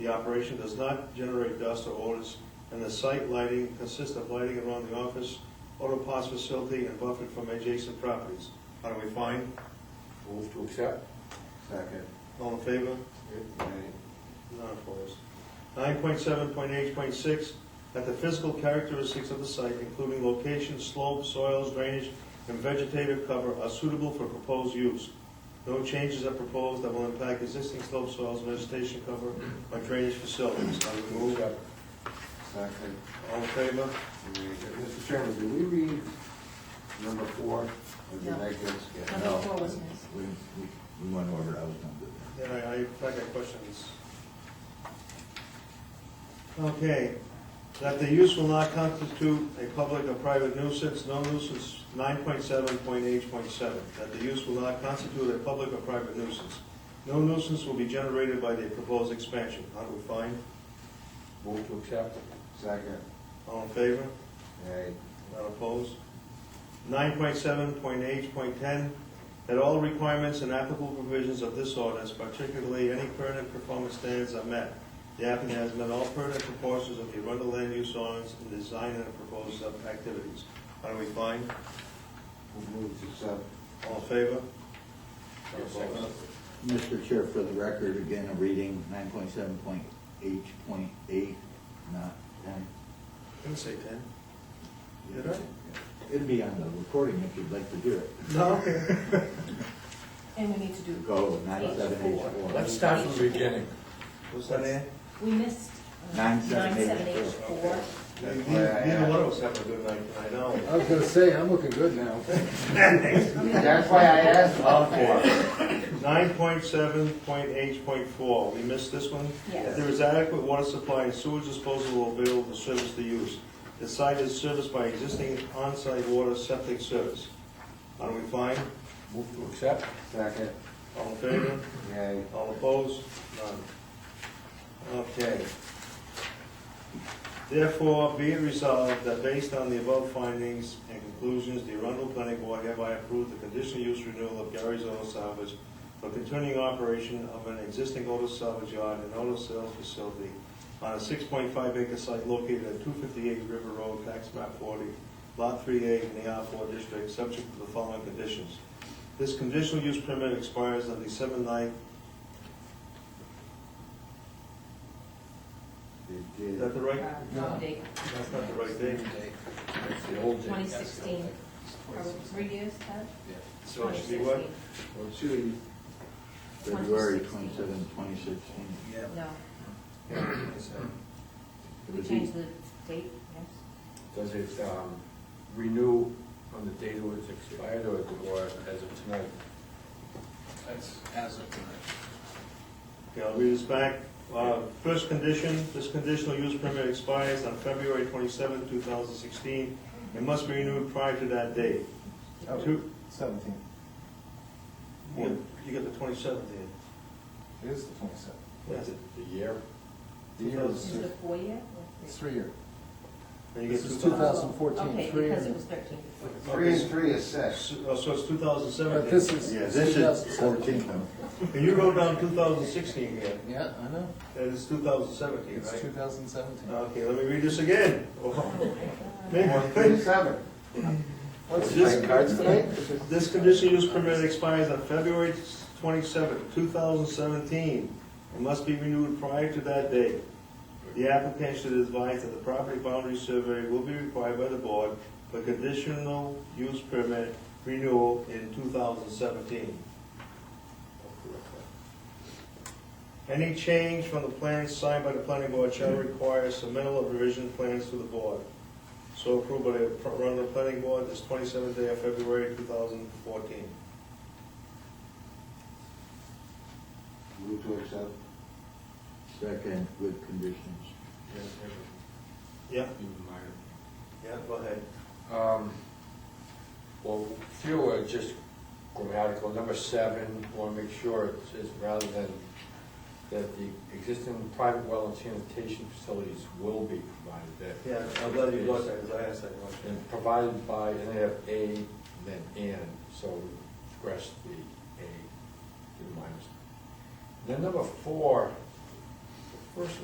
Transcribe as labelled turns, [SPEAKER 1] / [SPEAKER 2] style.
[SPEAKER 1] The operation does not generate dust or odors, and the site lighting consists of lighting around the office, auto parts facility, and buffered from adjacent properties. How do we find?
[SPEAKER 2] Move to accept?
[SPEAKER 3] Second.
[SPEAKER 1] All in favor? None opposed. Nine point seven point eight point six, that the physical characteristics of the site, including location, slope, soils, drainage, and vegetative cover are suitable for proposed use. No changes are proposed that will impact existing slope, soils, vegetation cover, or drainage facilities. How do we move?
[SPEAKER 2] Accept.
[SPEAKER 3] Second.
[SPEAKER 1] All in favor?
[SPEAKER 3] Mr. Chairman, did we read number four? Or did
[SPEAKER 4] No.
[SPEAKER 3] I get-
[SPEAKER 4] Number
[SPEAKER 3] No.
[SPEAKER 4] four was missed.
[SPEAKER 3] We, we, we went over, it. I was gonna do that.
[SPEAKER 1] Yeah, I, I I got questions. Okay, that the use will not constitute a public or private nuisance, no nuisance, nine point seven point eight point seven, that the use will not constitute a public or private nuisance. No nuisance will be generated by the proposed expansion, how do we find?
[SPEAKER 2] Move to accept?
[SPEAKER 3] Second.
[SPEAKER 1] All in favor?
[SPEAKER 3] Aye.
[SPEAKER 1] Not opposed. Nine point seven, point eight, point ten, that all requirements and applicable provisions of this ordinance, particularly any pertinent performance standards are met. The applicant has met all pertinent proportions of the Arundel land use ordinance in design and proposed activities. How do we find?
[SPEAKER 3] Move to accept.
[SPEAKER 1] All in favor?
[SPEAKER 2] Yes, second.
[SPEAKER 5] Mr. Chair, for the record, again, I'm reading nine point seven point eight point eight, not ten.
[SPEAKER 1] Didn't say ten. Did I?
[SPEAKER 5] It'd be on the recording if you'd like to hear it.
[SPEAKER 1] No, okay.
[SPEAKER 4] And we need to do,
[SPEAKER 5] Go nine seven eight
[SPEAKER 2] Let's
[SPEAKER 5] four.
[SPEAKER 2] start from the beginning.
[SPEAKER 1] What's that, Ann?
[SPEAKER 4] we missed uh,
[SPEAKER 5] Nine, seven, eight,
[SPEAKER 4] 9784.
[SPEAKER 3] That's
[SPEAKER 1] Neither
[SPEAKER 3] why I
[SPEAKER 1] neither one
[SPEAKER 3] asked.
[SPEAKER 1] of us having a good night tonight, no.
[SPEAKER 2] I was gonna say, I'm looking good now.
[SPEAKER 3] That's why I asked about four.
[SPEAKER 1] Nine point seven, point eight, point four, we missed this one?
[SPEAKER 4] Yes.
[SPEAKER 1] There is adequate water supply and sewage disposal available to service the use. The site is serviced by existing on-site water septic service. How do we find?
[SPEAKER 2] Move to accept?
[SPEAKER 3] Second.
[SPEAKER 1] All in favor?
[SPEAKER 3] Aye.
[SPEAKER 1] All opposed? None. Okay. Therefore, be it resolved that based on the above findings and conclusions, the Arundel Planning Board hereby approve the conditional use renewal of Gary's Auto Salvage for continuing operation of an existing auto salvage yard and auto sales facility on a six point five acre site located at two fifty-eight River Road, tax map forty, lot three A in the R four district, subject to the following conditions. This conditional use permit expires on December 9th.
[SPEAKER 3] Did-
[SPEAKER 1] Is
[SPEAKER 3] did-
[SPEAKER 1] that the right?
[SPEAKER 4] Uh, wrong date,
[SPEAKER 1] That's not the right date.
[SPEAKER 2] That's the old thing. That's the old
[SPEAKER 4] 2016.
[SPEAKER 2] thing.
[SPEAKER 4] Are we reduced, Ted?
[SPEAKER 1] So it should be what?
[SPEAKER 4] 2016.
[SPEAKER 3] Well, two,
[SPEAKER 5] February
[SPEAKER 4] 2016.
[SPEAKER 5] twenty-seven, twenty sixteen.
[SPEAKER 4] No, did we
[SPEAKER 5] Would
[SPEAKER 4] change
[SPEAKER 5] be-
[SPEAKER 4] the date? Yes.
[SPEAKER 2] Does it um, renew on the date it was expired or or as of tonight?
[SPEAKER 6] That's as of tonight.
[SPEAKER 1] Okay, I'll read this back. Uh, First condition, this conditional use permit expires on February 27, 2016. It must be renewed prior to that date.
[SPEAKER 6] Oh.
[SPEAKER 1] Two,
[SPEAKER 6] Seventeen.
[SPEAKER 1] you you got the 27th in.
[SPEAKER 6] It is the twenty-seventh.
[SPEAKER 2] What's it, the year?
[SPEAKER 6] The year
[SPEAKER 4] Is
[SPEAKER 6] is,
[SPEAKER 4] it a four year? or
[SPEAKER 6] it's three year.
[SPEAKER 1] And you
[SPEAKER 6] This
[SPEAKER 1] get
[SPEAKER 6] is
[SPEAKER 1] 2000
[SPEAKER 6] 2014,
[SPEAKER 4] Okay,
[SPEAKER 6] three
[SPEAKER 4] because
[SPEAKER 6] and-
[SPEAKER 4] it was thirteen.
[SPEAKER 3] three and three is six.
[SPEAKER 1] So oh, so it's
[SPEAKER 6] But this
[SPEAKER 1] 2017.
[SPEAKER 6] is.
[SPEAKER 5] Yeah, this is
[SPEAKER 6] 2007.
[SPEAKER 5] fourteen though.
[SPEAKER 1] And you wrote down 2016 here,
[SPEAKER 6] Yeah, I know.
[SPEAKER 1] and it's 2017,
[SPEAKER 6] It's
[SPEAKER 1] right?
[SPEAKER 6] two thousand seventeen.
[SPEAKER 1] Okay, let me read this again.
[SPEAKER 3] Four, three, seven.
[SPEAKER 1] What's this?
[SPEAKER 3] Playing cards tonight?
[SPEAKER 1] This conditional use permit expires on February 27, 2017, and must be renewed prior to that date. The applicant should advise that the property boundary survey will be required by the board for conditional use permit renewal in 2017. Any change from the plans signed by the planning board shall require submittal of revision plans to the board. So approved by the Arundel Planning Board this 27th day of February 2014.
[SPEAKER 3] Move to accept.
[SPEAKER 5] Second with conditions.
[SPEAKER 1] Yeah,
[SPEAKER 2] Even minor.
[SPEAKER 1] yeah, go ahead.
[SPEAKER 2] Um, Well, few are just grammatical. Number seven, want to make sure it says rather than that the existing private well and sanitation facilities will be provided that.
[SPEAKER 1] Yeah, I'm glad you brought that, because I asked that question.
[SPEAKER 2] And provided by, and they have A, and then N, so scratch the A, the minus. Then number four, First